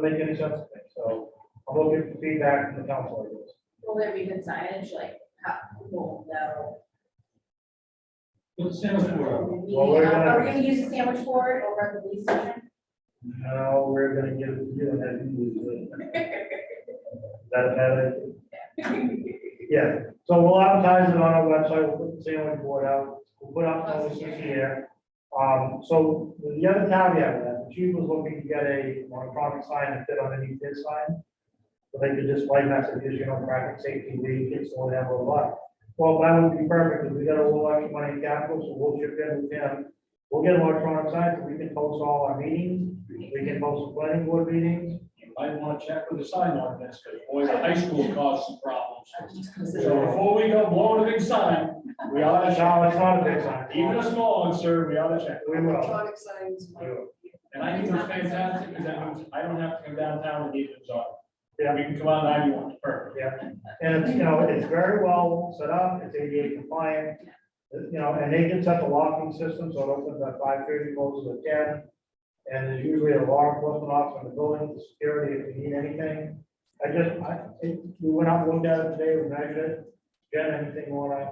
make any sense to me, so I'm looking for feedback from the council, I guess. Will there be good signage, like, how, well, no. Let's stand up for Well, we're gonna- Are we gonna use a sandwich board over at the police station? Now, we're gonna give, you know, that, you do it. that, that, yeah, so we'll advertise it on our website, we'll put the sandwich board out, we'll put up notices here. Um, so the other caveat, with that the chief was looking to get a monochrome sign to fit underneath his sign. So they could just light message, you know, traffic safety week, it's all that, blah, blah. Well, that would be perfect, because we got a little extra money in capital, so we'll chip in with them. We'll get electronic signs, we can post all our meetings, we can post planning board meetings. You might want to check with the sign ordinance, because boy, the high school caused some problems. So So, before we go blowing a big sign, we ought to, No, it's not a big sign. even a small one, sir, we ought to check. We will. Electronic signs. We will. And I think it's fantastic, because that means I don't have to go downtown and get it on. Yeah. We can come out ninety-one, perfect. And it's, you know, it's very well set up, it's ADA compliant, you know, and they can set the locking system, so it opens at five thirty, closes at ten. And there's usually a law enforcement officer in the building, the security, if you need anything. I just, I, it- we went out, and looked at it today, we measured it, Jen, anything more, uh,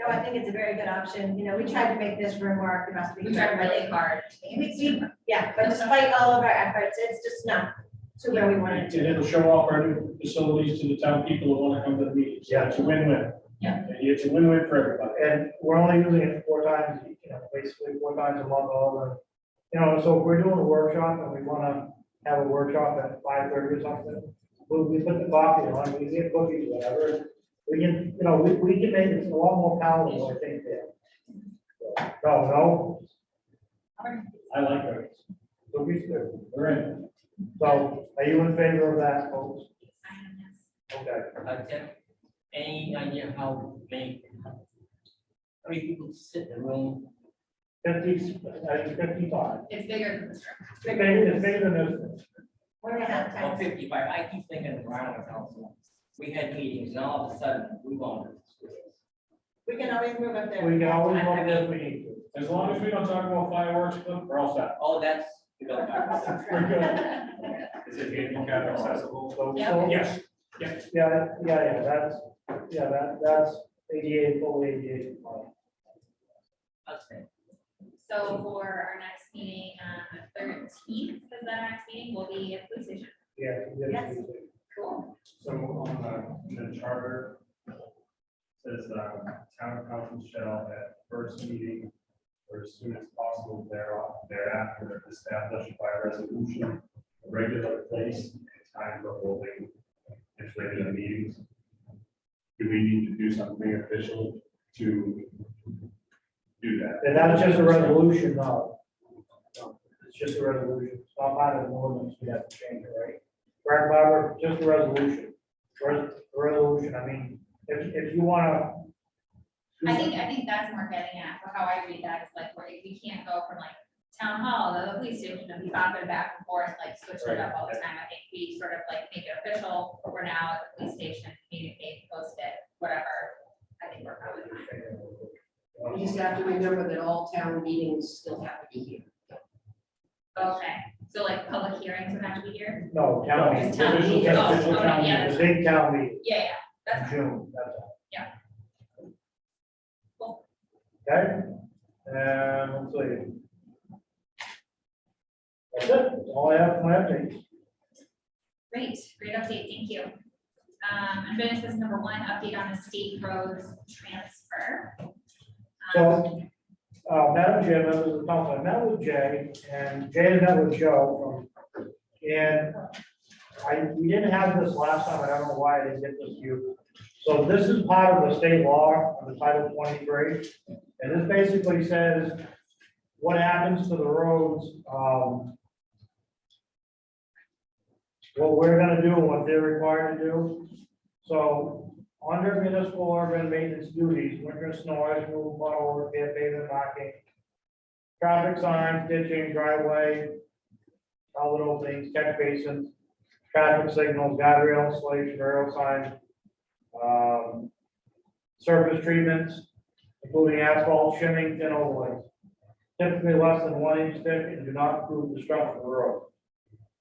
No, I think it's a very good option. You know, we tried to make this room work the best we We tried could. really hard. Yeah, but despite all of our efforts, it's just not to where we wanted And it to. it'll show off our new facilities to the town people who want to come to the meetings. Yeah. It's a win-win. Yeah. It's a win-win for everybody. and we're only using it four times, you know, basically four times a month, all the. You know, so if we're doing a workshop and we wanna have a workshop at five thirty or something, we, we put the coffee on, we get cookies, whatever. We can, you know, we, we can make it a lot more palatable, I think, there. No, no, I like it. so we should, We're in. so are you in favor of that, folks? Okay, Uh, Jeff, any idea how many, how many people sit in the room? fifty, I think fifty-five, It's bigger than this room. maybe, it's bigger than this. One and a half Or times. fifty-five, I keep thinking around the council. We had meetings and all of a sudden, we wanted. We can always move up there. We can always work if we need to. As long as we don't talk about fireworks, we're all set. Oh, that's, you know, that's- We're good. Is it handicap accessible? So- Yeah. so- Yes. Yeah, yeah, yeah, that's, yeah, that, that's ADA, full ADA. compliant. that's it. So for our next meeting, um, the thirteenth, is that our next meeting, will be at the police station. Yeah. we have to do it. Cool. So on the, in the charter, says, uh, town council shall at first meeting or as soon as possible thereof, thereafter establish by resolution a regular place and time for holding its regular meetings. Do we need to do something official to do that? And that's just a resolution, no. No, It's just a resolution, it's not part of the ordinance, we have to change it, right? Right, Barbara, just a resolution, Res- resolution, I mean, if, if you wanna. I Mm-hmm. think, I think that's more getting at, for how I read that, is like, where we can't go from like town hall to the police station and be bopping back and forth, like switching it up all the time. I think we sort of like make it official, we're now at the police station, communicate, post it, whatever. I think we're probably fine. We just have to remember that all town meetings still have to be here. Okay, so like public hearings would have to be here? No, town meeting. Town meeting. Just Oh, official okay, town yeah. meeting, The big town meeting, Yeah, yeah, that's, June, that's all. Cool. Okay, um, let's see. That's it, That's all I have for my update. great, great update, thank you. Um, unfinished business number one, update on the state roads transfer. So- Uh, Madam Chair, members of the council, I met with Jay, and Jay had met with Joe. um, And I, we didn't have this last time, I don't know why I didn't get this to you. So this is part of the state law of the Title twenty-three, and this basically says what happens to the roads, um, what we're gonna do, and what they're required to do. So under municipal urban maintenance duties, winter snow, ice removal, puddle repair, pavement knocking, traffic signs, ditching, driveway, all the little things, catch basins, traffic signals, guardrail installation, rail signs, um, surface treatments, including asphalt, shimming, and overlays. Typically less than one inch thick and do not improve the structure of the road.